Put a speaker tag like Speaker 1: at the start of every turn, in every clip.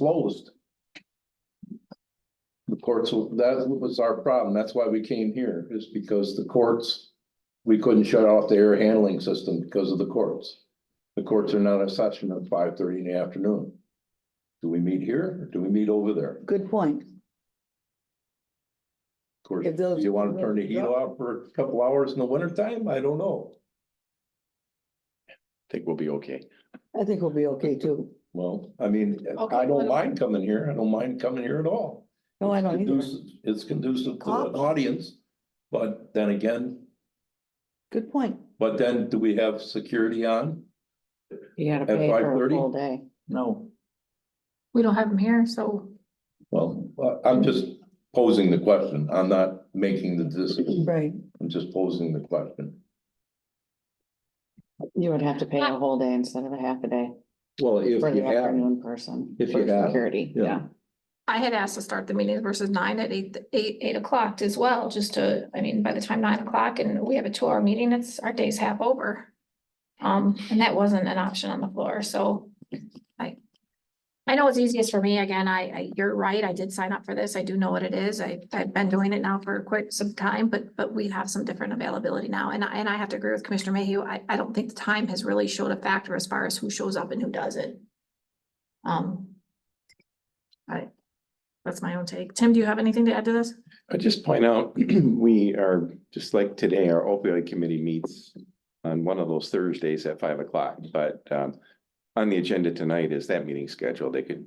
Speaker 1: closed. The courts, that was our problem. That's why we came here, is because the courts, we couldn't shut off the air handling system because of the courts. The courts are not in session at five thirty in the afternoon. Do we meet here or do we meet over there? Of
Speaker 2: Good point.
Speaker 1: course,
Speaker 2: If those-
Speaker 1: you want to turn the heat off for a couple hours in the wintertime? I don't know.
Speaker 3: think we'll be okay.
Speaker 2: I think we'll be okay too.
Speaker 1: Well, I mean,
Speaker 4: Okay,
Speaker 1: I
Speaker 4: why
Speaker 1: don't
Speaker 4: don't-
Speaker 1: mind coming here. I don't mind coming here at all.
Speaker 2: No, I don't either.
Speaker 1: Conducive- It's conducive to an
Speaker 2: Coffee.
Speaker 1: audience, but then again,
Speaker 2: Good point.
Speaker 1: but then do we have security on?
Speaker 5: You gotta
Speaker 1: At
Speaker 5: pay for a
Speaker 1: 5:30?
Speaker 5: full day.
Speaker 3: No.
Speaker 4: We don't have them here, so
Speaker 1: Well, I- I'm just posing the question. I'm not making the decision.
Speaker 2: Right.
Speaker 1: I'm just posing the question.
Speaker 5: You would have to pay a whole day instead of a half a day
Speaker 1: Well, if
Speaker 5: for
Speaker 1: you
Speaker 5: the
Speaker 1: have,
Speaker 5: afternoon person.
Speaker 1: If
Speaker 5: for
Speaker 1: you have,
Speaker 5: Security,
Speaker 1: yeah.
Speaker 5: yeah.
Speaker 4: I had asked to start the meeting versus nine at eight, eight, eight o'clock as well, just to, I mean, by the time nine o'clock and we have a two hour meeting, it's, our day's half over. Um, and that wasn't an option on the floor, so I. I know it's easiest for me, again, I, I, you're right, I did sign up for this, I do know what it is, I, I've been doing it now for quite some time, but, but we have some different availability now, and I, and I have to agree with Commissioner Mayhew, I, I don't think the time has really showed a factor as far as who shows up and who doesn't. Um, that's my own take. Tim, do you have anything to add to this?
Speaker 3: I just point out, we are, just like today, our opioid committee meets on one of those Thursdays at five o'clock, but um. On the agenda tonight is that meeting schedule. They could, as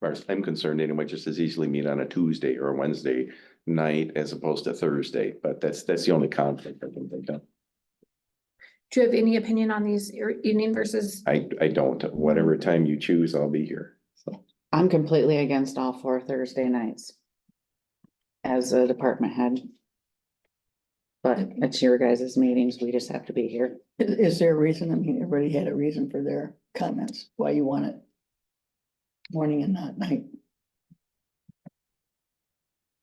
Speaker 3: far as I'm concerned, anyway, just as easily meet on a Tuesday or a Wednesday night as opposed to Thursday, but that's, that's the only conflict I can think of.
Speaker 4: Do you have any opinion on these ear- union versus?
Speaker 3: I, I don't, whatever time you choose, I'll be here, so.
Speaker 5: I'm completely against all four Thursday nights. As a department head. But it's your guys' meetings. We just have to be here.
Speaker 2: I- Is there a reason? I mean, everybody had a reason for their comments, why you want it morning and not night.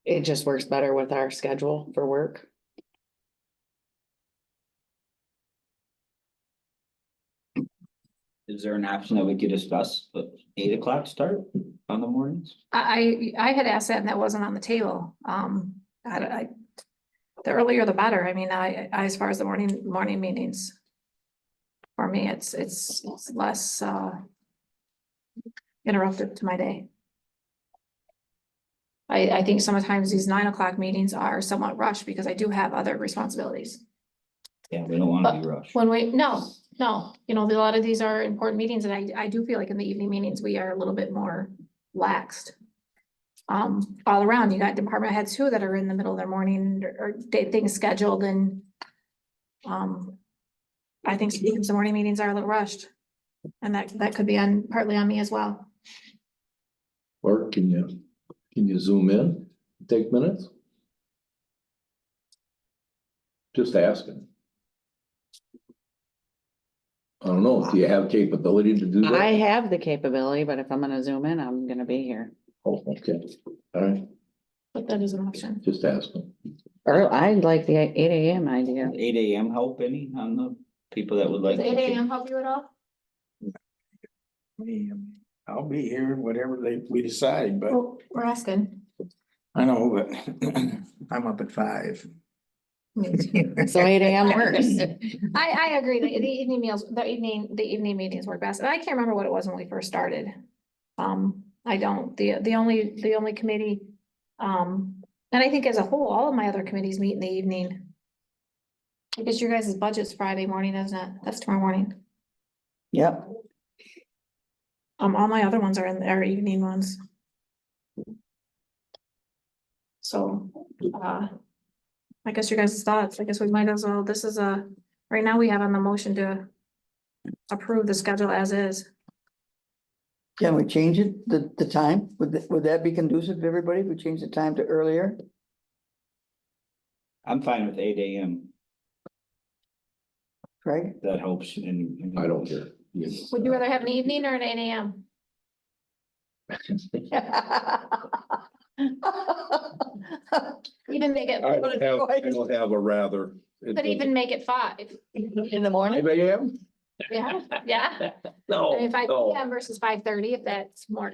Speaker 5: It just works better with our schedule for work.
Speaker 6: Is there an option that we could discuss, but eight o'clock start on the mornings?
Speaker 4: I, I, I had asked that and that wasn't on the table. Um, I, I- the earlier the better. I mean, I, I, as far as the morning, morning meetings. For me, it's, it's less, uh, interruptive to my day. I, I think sometimes these nine o'clock meetings are somewhat rushed because I do have other responsibilities.
Speaker 6: Yeah, we don't wanna be rushed.
Speaker 4: When we, no, no, you know, a lot of these are important meetings and I, I do feel like in the evening meetings, we are a little bit more laxed. Um, all around, you got department heads too that are in the middle of their morning or- or day things scheduled and um, I think sometimes the morning meetings are a little rushed. And that, that could be on, partly on me as well.
Speaker 1: Mark, can you, can you zoom in, take minutes? Just asking. I don't know, do you have capability to do that?
Speaker 5: I have the capability, but if I'm gonna zoom in, I'm gonna be here.
Speaker 1: Oh, okay, all right,
Speaker 4: But that is an option.
Speaker 1: just asking.
Speaker 5: Or I like the eight AM idea.
Speaker 6: Eight AM help any on the people that would like?
Speaker 4: Does
Speaker 6: to
Speaker 4: eight AM help you at all?
Speaker 7: Me, um, I'll be here, whatever they, we decide, but
Speaker 4: Well, Oh, we're asking.
Speaker 7: I know, but I'm up at five.
Speaker 5: So eight AM works.
Speaker 4: I, I agree, the, the evening meals, the evening, the evening meetings work best, and I can't remember what it was when we first started. Um, I don't, the, the only, the only committee, um, and I think as a whole, all of my other committees meet in the evening. I guess your guys' budget's Friday morning, isn't it? That's tomorrow morning.
Speaker 2: Yep.
Speaker 4: Um, all my other ones are in, are evening ones. So, uh, I guess your guys' thoughts, I guess we might as well, this is a, right now we have on the motion to approve the schedule as is.
Speaker 2: Can we change it, the, the time? Would, th- would that be conducive to everybody if we change the time to earlier?
Speaker 6: I'm fine with eight AM.
Speaker 2: Right?
Speaker 6: That helps and. and-
Speaker 1: I don't care.
Speaker 4: Would you rather have an evening or an eight AM? Even make it,
Speaker 1: I don't have, I don't have a rather. It
Speaker 4: but even make it five,
Speaker 2: In the
Speaker 1: doesn't-
Speaker 2: morning?
Speaker 1: Maybe I am?
Speaker 4: yeah, yeah, I
Speaker 1: No,
Speaker 4: mean, five
Speaker 6: Oh,
Speaker 1: no.
Speaker 4: PM versus five thirty, if that's more.